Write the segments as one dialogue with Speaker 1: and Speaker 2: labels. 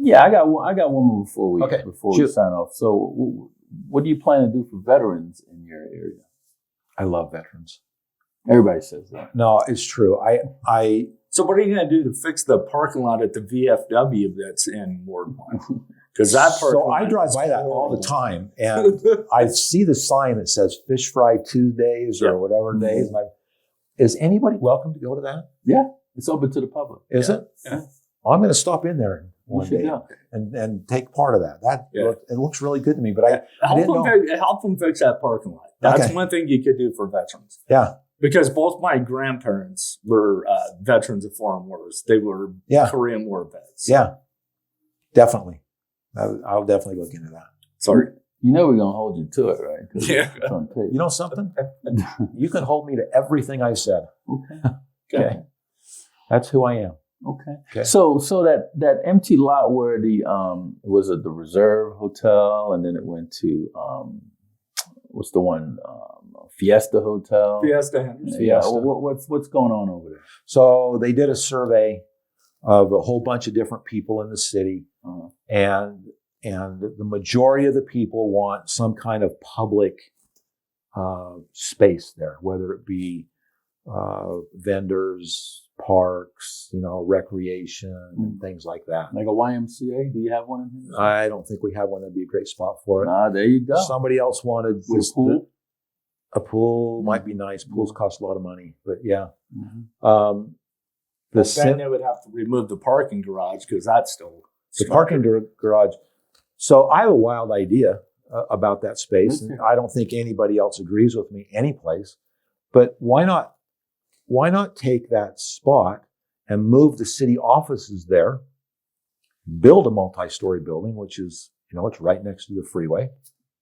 Speaker 1: Yeah, I got one. I got one more before we
Speaker 2: Okay.
Speaker 1: before
Speaker 2: Shoot.
Speaker 1: we sign off. So, w- what do you plan to do for veterans in your area?
Speaker 2: I love veterans.
Speaker 1: Everybody says that.
Speaker 2: No, it's true. I I
Speaker 3: So what are you going to do to fix the parking lot at the VFW that's in Ward One? Because that parking
Speaker 2: so I
Speaker 3: lot
Speaker 2: drive
Speaker 3: is
Speaker 2: by that all the time,
Speaker 3: horrible.
Speaker 2: and I see the sign that says Fish Fry Tuesdays
Speaker 3: Yeah. Mm-hmm.
Speaker 2: or whatever days. And I, is anybody welcome to go to that?
Speaker 1: It's open to the public.
Speaker 2: Is
Speaker 3: Yeah.
Speaker 2: it?
Speaker 3: Yeah.
Speaker 2: I'm going to stop in there
Speaker 1: You
Speaker 2: one
Speaker 1: should
Speaker 2: day
Speaker 1: know.
Speaker 2: and, and take part of that. That
Speaker 3: Yeah.
Speaker 2: look, it looks really good to me. But I
Speaker 3: help
Speaker 2: didn't
Speaker 3: them, fix, help them fix that parking lot. That's
Speaker 2: Okay.
Speaker 3: one thing you could do for veterans.
Speaker 2: yeah
Speaker 3: Because both my grandparents were uh, veterans of foreign wars. They were
Speaker 1: Uh.
Speaker 2: yeah
Speaker 3: Korean War vets.
Speaker 2: yeah definitely. I, I'll definitely look into that.
Speaker 3: Sorry.
Speaker 1: You know we're gonna hold you to it, right? 'Cause
Speaker 3: Yeah.
Speaker 1: it's on tape.
Speaker 2: You know something? you can hold me to everything I said.
Speaker 1: Okay.
Speaker 2: Okay, that's who I am.
Speaker 1: Okay.
Speaker 2: Okay.
Speaker 1: So, so that that empty lot where the um it was at the Reserve Hotel, and then it went to um what's the one um, Fiesta Hotel.
Speaker 3: Fiesta Henderson.
Speaker 1: Yeah.
Speaker 2: Fiesta.
Speaker 1: What, what's what's going on over there?
Speaker 2: So they did a survey of a whole bunch of different people in the city,
Speaker 1: Uh,
Speaker 2: and and the majority of the people want some kind of public uh, space there, whether it be uh, vendors, parks, you know, recreation,
Speaker 1: Mm.
Speaker 2: and things like that.
Speaker 1: like a YMCA? Do you have one in here?
Speaker 2: I don't think we have one that'd be a great spot for it.
Speaker 1: Ah, there you go.
Speaker 2: Somebody else wanted
Speaker 1: With
Speaker 2: was
Speaker 1: a pool. Mm.
Speaker 2: The, a pool might be nice. Pools cost a lot of money, but yeah.
Speaker 1: Mhm.
Speaker 2: Um, the
Speaker 3: Well,
Speaker 2: cen-
Speaker 3: then they would have to remove the parking garage because that's still
Speaker 2: the parking gar- garage. So I have a wild idea uh, about that space, and I don't think anybody else agrees with me anyplace. But why not? Why not take that spot and move the city offices there? Build a multi-story building, which is you know it's right next to the freeway.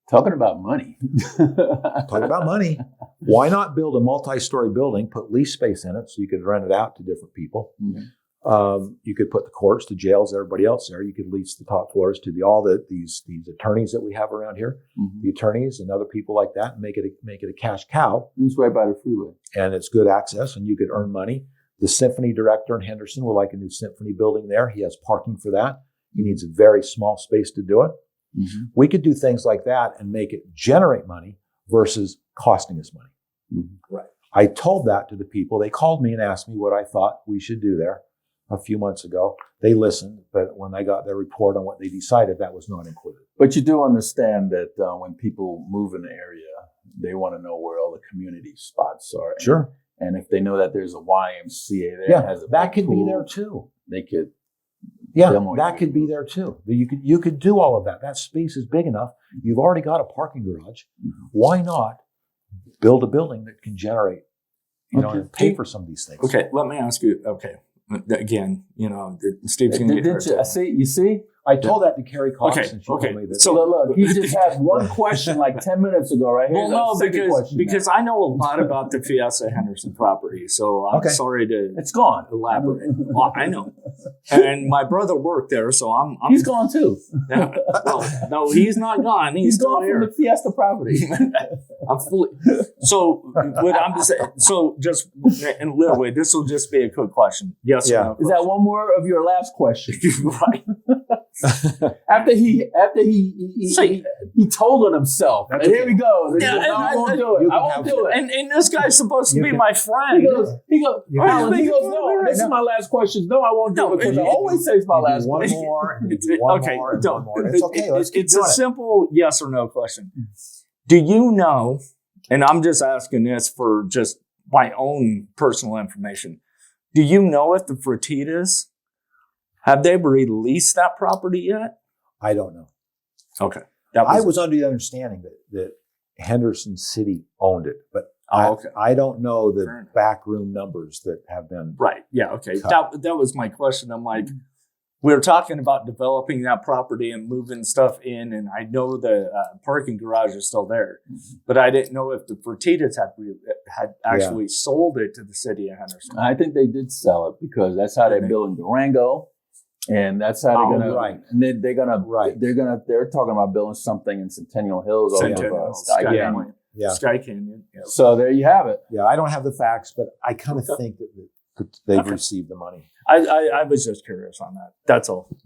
Speaker 1: Talking about money.
Speaker 2: Talk about money. Why not build a multi-story building? Put lease space in it so you could rent it out to different people.
Speaker 1: Mhm.
Speaker 2: Um, you could put the courts, the jails, everybody else there. You could lease the top floors to the all the these these attorneys that we have around here,
Speaker 1: Mhm.
Speaker 2: the attorneys and other people like that, and make it a, make it a cash cow.
Speaker 1: It's right by the freeway.
Speaker 2: And it's good access, and you could earn money. The symphony director in Henderson would like a new symphony building there. He has parking for that. He needs a very small space to do it.
Speaker 1: Mhm.
Speaker 2: We could do things like that and make it generate money versus costing us money.
Speaker 1: Mhm.
Speaker 2: I told that to the people. They called me and asked me what I thought we should do there a few months ago. They listened, but when I got their report on what they decided, that was not included.
Speaker 1: But you do understand that uh, when people move in the area, they want to know where all the community spots are. And-
Speaker 2: Sure.
Speaker 1: And if they know that there's a YMCA there,
Speaker 2: Yeah,
Speaker 1: that has a
Speaker 2: that
Speaker 1: big
Speaker 2: could be
Speaker 1: pool,
Speaker 2: there too.
Speaker 1: They could.
Speaker 2: Yeah,
Speaker 1: Demo
Speaker 2: that
Speaker 1: unit.
Speaker 2: could be there too. You could you could do all of that. That space is big enough. You've already got a parking garage.
Speaker 3: Mm-hmm.
Speaker 1: Mhm.
Speaker 2: Why not build a building that can generate, you know,
Speaker 1: Okay.
Speaker 2: and pay for some of these things?
Speaker 3: Okay, let me ask you. Okay, again, you know, the- Steve's
Speaker 1: Did,
Speaker 3: going to get
Speaker 1: did you, I
Speaker 3: hurt.
Speaker 1: see. You see.
Speaker 2: I told that to Carrie Cox,
Speaker 3: Okay,
Speaker 2: and she
Speaker 3: okay.
Speaker 2: told me that.
Speaker 3: So-
Speaker 1: look, look, he just had one question like ten minutes ago, right here.
Speaker 3: Well, no,
Speaker 1: Second
Speaker 3: because
Speaker 1: question now.
Speaker 3: because I know a lot about the Fiesta Henderson property, so I'm
Speaker 2: Okay.
Speaker 3: sorry to
Speaker 1: it's gone.
Speaker 3: elaborate. Well, I know, and my brother worked there, so I'm. I'm
Speaker 1: He's gone too.
Speaker 3: Yeah. Well, no, he's not gone. He's,
Speaker 1: He's
Speaker 3: still
Speaker 1: gone
Speaker 3: here.
Speaker 1: from the Fiesta property.
Speaker 3: I'm fully. So what I'm just saying. So just and literally, this will just be a quick question. Yes.
Speaker 2: Yeah.
Speaker 3: Or
Speaker 1: Is
Speaker 3: no
Speaker 1: that one more of your last question?
Speaker 3: question? right.
Speaker 1: After he, after he, he, he,
Speaker 3: So-
Speaker 1: he, he told on himself.
Speaker 2: That's
Speaker 1: and here
Speaker 2: okay.
Speaker 1: we go.
Speaker 3: Yeah,
Speaker 1: No,
Speaker 3: and
Speaker 1: I
Speaker 3: I-
Speaker 1: won't
Speaker 3: I-
Speaker 1: do it.
Speaker 2: you
Speaker 1: I
Speaker 2: can
Speaker 1: won't
Speaker 2: have-
Speaker 1: do it.
Speaker 3: And and this guy's supposed to
Speaker 2: You
Speaker 3: be
Speaker 2: can-
Speaker 3: my
Speaker 1: he
Speaker 3: friend.
Speaker 1: goes, he goes,
Speaker 2: You
Speaker 3: can-
Speaker 1: Alan, he goes, no, this is my last question. No, I won't do
Speaker 3: No,
Speaker 1: it because
Speaker 3: you-
Speaker 1: I always say it's my
Speaker 2: You do
Speaker 1: last
Speaker 2: one
Speaker 1: question.
Speaker 2: more, and you
Speaker 3: It's-
Speaker 2: do one
Speaker 3: okay,
Speaker 2: more, and one
Speaker 3: don't-
Speaker 2: more. It's okay. Let's
Speaker 3: it-
Speaker 2: keep
Speaker 3: it's
Speaker 2: doing
Speaker 3: a
Speaker 2: it. Mm.
Speaker 3: simple yes or no question. Do you know? And I'm just asking this for just my own personal information. Do you know if the Fratitas have they released that property yet?
Speaker 2: I don't know.
Speaker 3: Okay, that
Speaker 2: I was under the understanding that, that Henderson City owned it, but I,
Speaker 3: Oh, okay.
Speaker 2: I don't know
Speaker 3: Fair
Speaker 2: the
Speaker 3: enough.
Speaker 2: backroom numbers that have been.
Speaker 3: Right. Yeah. Okay.
Speaker 2: Cut.
Speaker 3: That that was my question. I'm like, we were talking about developing that property and moving stuff in, and I know the uh, parking garage is still there, but I didn't know if the Fertitas had re- had actually sold it to the city of Henderson.
Speaker 1: I think they did sell it because that's how they're
Speaker 3: Okay.
Speaker 1: building Durango, and that's how
Speaker 3: Oh,
Speaker 1: they're gonna.
Speaker 2: right.
Speaker 1: And then they're gonna.
Speaker 2: Right.
Speaker 1: They're gonna. They're talking about building something in Centennial Hills over
Speaker 3: Centennial,
Speaker 1: uh, Sky
Speaker 3: Sky
Speaker 1: Canyon.
Speaker 3: Canyon.
Speaker 2: Yeah,
Speaker 3: Sky Canyon. yeah.
Speaker 1: So there you have it.
Speaker 2: yeah. I don't have the facts, but I kind of
Speaker 3: Okay.
Speaker 2: think that, that they've
Speaker 3: Okay.
Speaker 2: received the money.
Speaker 3: I, I I was just curious on that. That's all.